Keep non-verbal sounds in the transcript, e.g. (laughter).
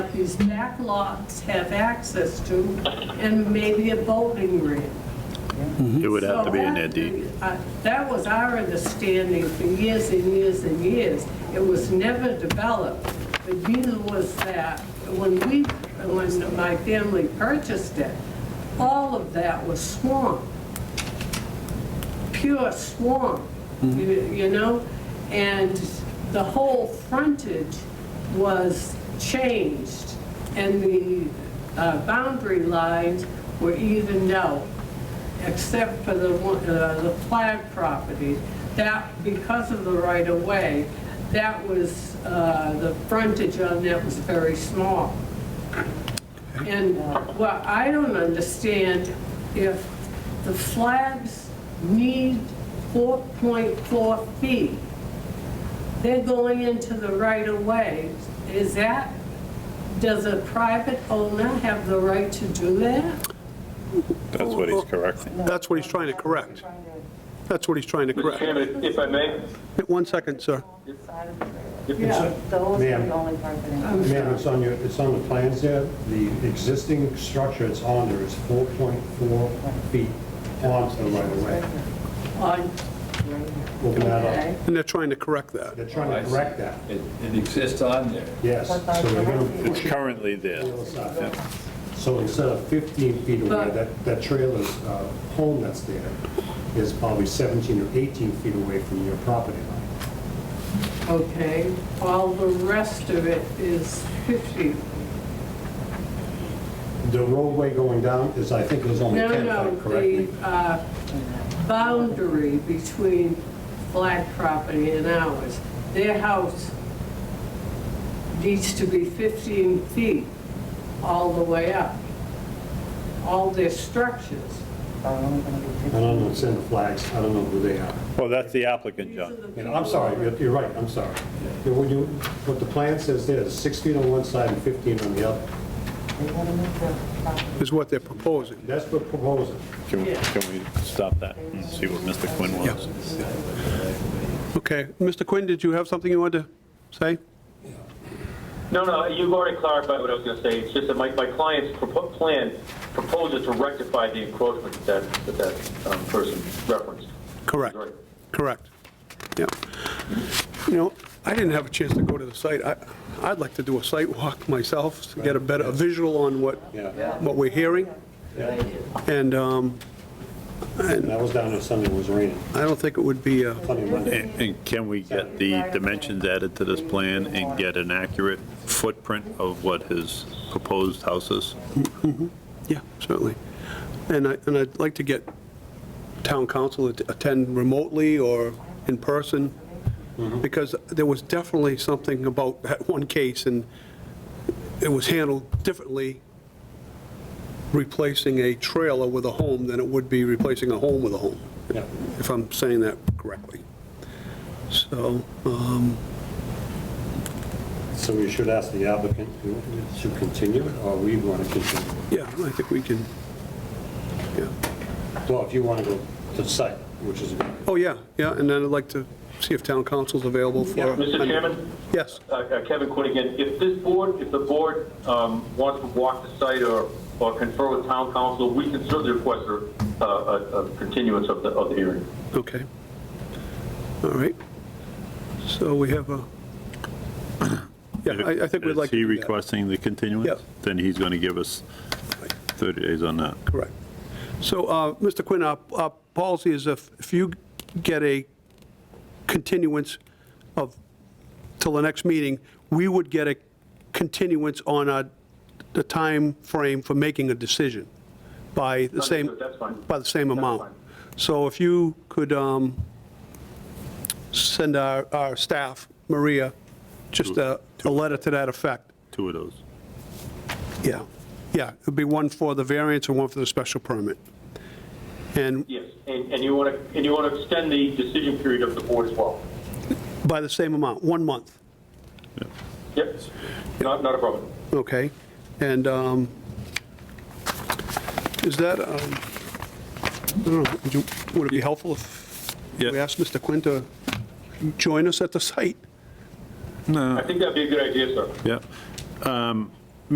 these back lots have access to, and maybe a boating ramp. It would have to be in So their deed. uh, That was our understanding for years and years and years. It was never developed, but neither was that, when we, when my family purchased it, all of that was swamp, pure swamp, you you know? And the whole frontage was changed, and the uh, boundary lines were evened out except for the, one- uh, the flag property. That, because of the right-of-way, that was, uh, the frontage on that was very small. And what I don't understand, if the flags need 4.4 feet, they're going into the right-of-way, is that, does a private owner have the right to do that? That's what he's correcting. That's what he's trying to correct. That's what he's trying to Mr. correct. Chairman, if I may, One second, sir. Side of the trailer. Yeah. Those are Ma'am. the only part that. I'm sorry. Ma'am, it's on your, it's on the plans there. The existing structure it's on there is 4.4 feet onto the right of way. On Open that Okay. up. And they're trying to correct that. They're trying to correct that, It it exists on there. yes. So they're going to It's push it currently there. on the other side. So instead of 15 feet away, But- that, that trailer's uh, home that's there is probably 17 or 18 feet away from your property line. Okay, all the rest of it is 50. The roadway going down is, I think it was only No, 10, if no, I correctly. the uh, boundary between flag property and ours, their house needs to be 15 feet all the way up, all their structures. I don't know, it's in the flags, I don't know who they are. Well, that's the applicant, These are the John. And people- I'm sorry, you're, you're right, I'm sorry. Yeah, When you, what the plan says there is six feet on one side and 15 on the other. Is what they're proposing. That's the proposal. Can we, can we stop that and see what Mr. Quinn wants? Okay. Mr. Quinn, did you have something you wanted to say? no, no, you've already clarified what I was going to say. It's just that my, my client's propo- plan proposes to rectify the encroachment that, that that um, person referenced. Correct, Right. correct. Yeah. You know, I didn't have a chance to go to the site. I, I'd like to do a site walk myself to get a better, a visual on what, Yeah. what we're hearing. And um, And I was down there Sunday, it was raining, I don't think it would be a Sunday, Monday. And and can we get the dimensions added to this plan and get an accurate footprint of what his proposed house is? Yeah, certainly. And I, and I'd like to get town council to attend remotely or in person, because there was definitely something about that (laughs) one case, and it was handled differently, replacing a trailer with a home than it would be replacing a home with a home, Yeah. if I'm saying that correctly. So, So we should ask the applicant to to continue it, or we want to continue it. yeah, I think we can, yeah. Well, if you want to go to the site, which is, Oh, yeah, yeah, and then I'd like to see if town council's available for... Mr. Chairman? Yes. Uh, uh, Kevin Quinn again, if this board, if the board um, wants to walk the site or, or confer with town council, we can certainly request a, a- a a continuance of the, of the hearing. Okay. All right. So we have a, yeah, I I think we'd like Is he to do that. requesting the continuance? Yeah. Then he's going to give us 30 days on that. Correct. So, uh, Mr. Quinn, our our policy is if if you get a continuance of, till the next meeting, we would get a continuance on our, the time frame for making a decision by the same, Understood, that's fine. by the same That's amount. fine. So if you could um, send our, our staff, Maria, just a, a letter to that effect. Two of those. Yeah, yeah, it'd be one for the variance and one for the special permit. And Yes, and, and you want to, and you want to extend the decision period of the board as well. by the same amount, one month, Yep, not, not a problem. okay? And um, is that, um, I don't know, would you- would it be helpful if we Yeah. asked Mr. Quinn to join us at the site? I think that'd be a good idea, sir. Yeah. Um,